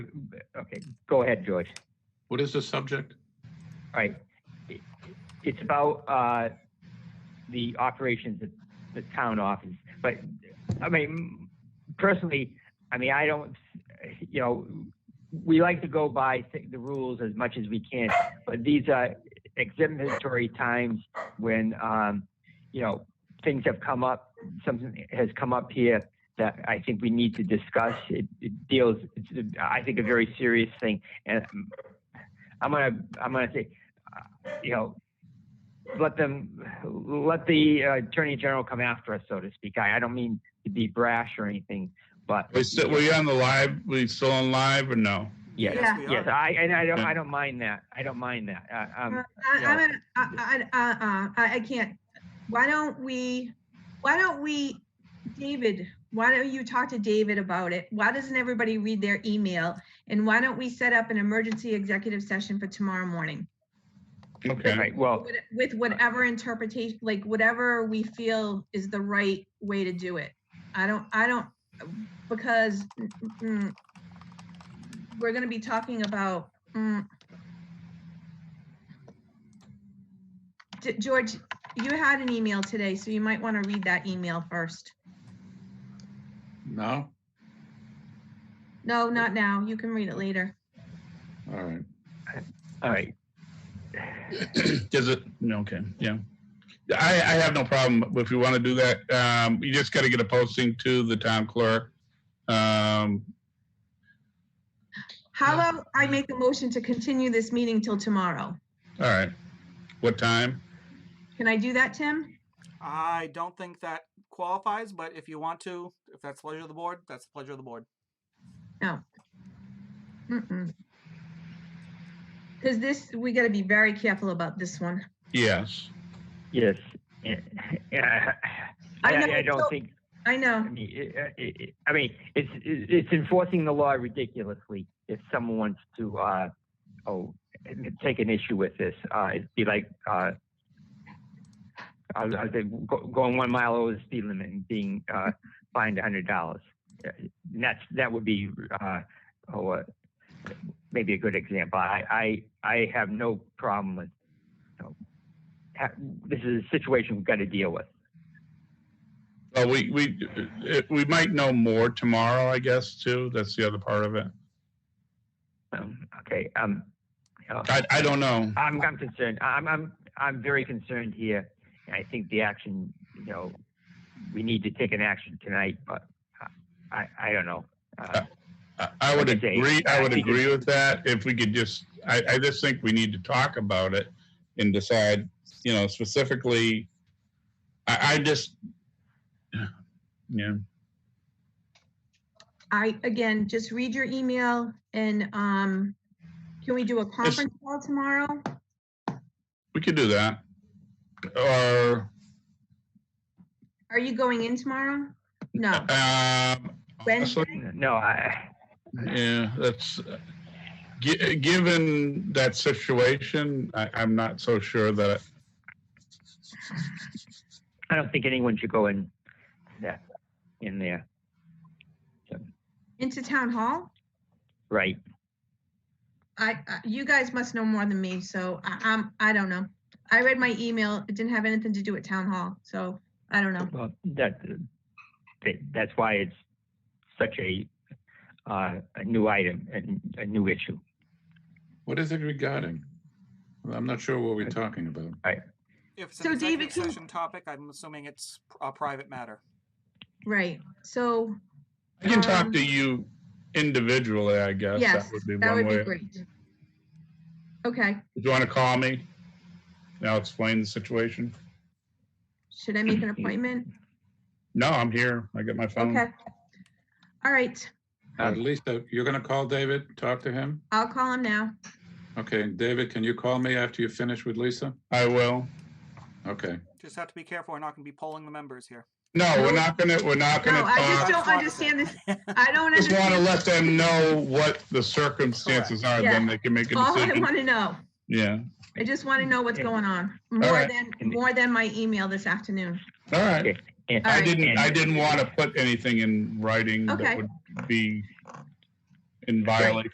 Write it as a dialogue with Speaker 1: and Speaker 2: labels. Speaker 1: Okay, go ahead, George.
Speaker 2: What is the subject?
Speaker 1: All right. It- It's about uh, the operations of the town office. But, I mean, personally, I mean, I don't, you know, we like to go by thi- the rules as much as we can, but these are exemplary times when, um, you know, things have come up, something has come up here that I think we need to discuss. It it deals, it's, I think, a very serious thing. And I'm gonna I'm gonna say, uh, you know, let them let the uh, attorney general come after us, so to speak. I, I don't mean to be brash or anything, but
Speaker 3: We still, we on the live, we still on live or no?
Speaker 1: yes,
Speaker 4: Yeah.
Speaker 1: yes, I and I don't I don't mind that. I don't mind that. Uh,
Speaker 4: Uh,
Speaker 1: um,
Speaker 4: I,
Speaker 1: you know.
Speaker 4: I'm gonna- I, I, uh-uh, I, I can't. Why don't we, why don't we, David, why don't you talk to David about it? Why doesn't everybody read their email? And why don't we set up an emergency executive session for tomorrow morning?
Speaker 1: all
Speaker 3: Okay,
Speaker 1: right. Well,
Speaker 4: With- With whatever interpretation, like whatever we feel is the right way to do it. I don't, I don't, because mm, we're gonna be talking about, mm. Ge- George, you had an email today, so you might want to read that email first.
Speaker 2: No?
Speaker 4: No, not now. You can read it later.
Speaker 2: All right.
Speaker 1: all right.
Speaker 3: does it, no, okay, yeah. I, I have no problem if you want to do that. Um, you just got to get a posting to the town clerk. Um,
Speaker 4: How about I make a motion to continue this meeting till tomorrow?
Speaker 3: all right. What time?
Speaker 4: Can I do that, Tim?
Speaker 5: I don't think that qualifies, but if you want to, if that's the pleasure of the board, that's the pleasure of the board.
Speaker 4: Because this, we got to be very careful about this one.
Speaker 3: Yes.
Speaker 1: Yes. Yeah. I,
Speaker 4: I know,
Speaker 1: I, I don't
Speaker 4: so-
Speaker 1: think.
Speaker 4: I
Speaker 1: I
Speaker 4: know.
Speaker 1: mean, it, it, it, I mean, it's it's enforcing the law ridiculously. If someone wants to, uh, oh, take an issue with this, uh, it'd be like, uh, I, I think go, going one mile over the speed limit and being uh, fined a hundred dollars. That's that would be, uh, oh, uh, maybe a good example. I I, I have no problem with. You know, ha- this is a situation we've got to deal with.
Speaker 3: Well, we, we, we might know more tomorrow, I guess, too. That's the other part of it.
Speaker 1: Um, okay. Um. you know.
Speaker 3: I, I don't know.
Speaker 1: I'm, I'm concerned. I'm, I'm, I'm very concerned here. And I think the action, you know, we need to take an action tonight, but I- I, I don't know. Uh,
Speaker 3: I- I would
Speaker 1: Like I say,
Speaker 3: agree, I
Speaker 1: I
Speaker 3: would
Speaker 1: think
Speaker 3: agree with that if we could just, I, I just think we need to talk about it and decide, you know, specifically, I, I just, yeah,
Speaker 4: I, again, just read your email and, um, can we do a conference call tomorrow?
Speaker 3: we could do that. Or,
Speaker 4: Are you going in tomorrow? No.
Speaker 3: um,
Speaker 4: Wednesday?
Speaker 3: honestly,
Speaker 1: no, I,
Speaker 3: yeah, that's, gi- given that situation, I, I'm not so sure that,
Speaker 1: I don't think anyone should go in that, in there.
Speaker 4: Into town hall?
Speaker 1: Right.
Speaker 4: I, I- you guys must know more than me, so I, I'm, I don't know. I read my email. It didn't have anything to do with town hall, so I don't know.
Speaker 1: Well, that, that, that's why it's such a, uh, a new item and a new issue.
Speaker 2: What is it regarding? Well, I'm not sure what we're talking about.
Speaker 5: If it's
Speaker 4: So
Speaker 5: an
Speaker 4: David,
Speaker 5: executive
Speaker 4: can-
Speaker 5: session topic, I'm assuming it's a private matter.
Speaker 4: Right, so
Speaker 3: I can talk
Speaker 4: Um,
Speaker 3: to you individually, I guess.
Speaker 4: yes,
Speaker 3: That would be
Speaker 4: that
Speaker 3: one
Speaker 4: would be
Speaker 3: way.
Speaker 4: great. Okay,
Speaker 3: Do you want to call me? And I'll explain the situation.
Speaker 4: should I make an appointment?
Speaker 3: No, I'm here. I got my phone.
Speaker 4: Okay. All right,
Speaker 2: At least uh, you're going to call David, talk to him?
Speaker 4: I'll call him now.
Speaker 2: Okay, David, can you call me after you finish with Lisa?
Speaker 3: I will.
Speaker 2: Okay.
Speaker 5: Just have to be careful. We're not going to be polling the members here.
Speaker 3: No, we're not gonna, we're not
Speaker 4: No,
Speaker 3: gonna
Speaker 4: I just
Speaker 3: talk.
Speaker 4: don't understand this. I don't
Speaker 3: Just want to
Speaker 4: understand.
Speaker 3: let them know what the circumstances are, then
Speaker 4: Yeah.
Speaker 3: they can make a
Speaker 4: All I
Speaker 3: decision.
Speaker 4: want to know,
Speaker 3: Yeah,
Speaker 4: I just want to know what's
Speaker 1: Yeah.
Speaker 4: going on, more
Speaker 3: right.
Speaker 4: than, more than my email this afternoon.
Speaker 3: all right.
Speaker 1: And-
Speaker 3: I
Speaker 4: Alright.
Speaker 3: didn't,
Speaker 1: and-
Speaker 3: I didn't want to put anything in writing that
Speaker 4: Okay.
Speaker 3: would be in violation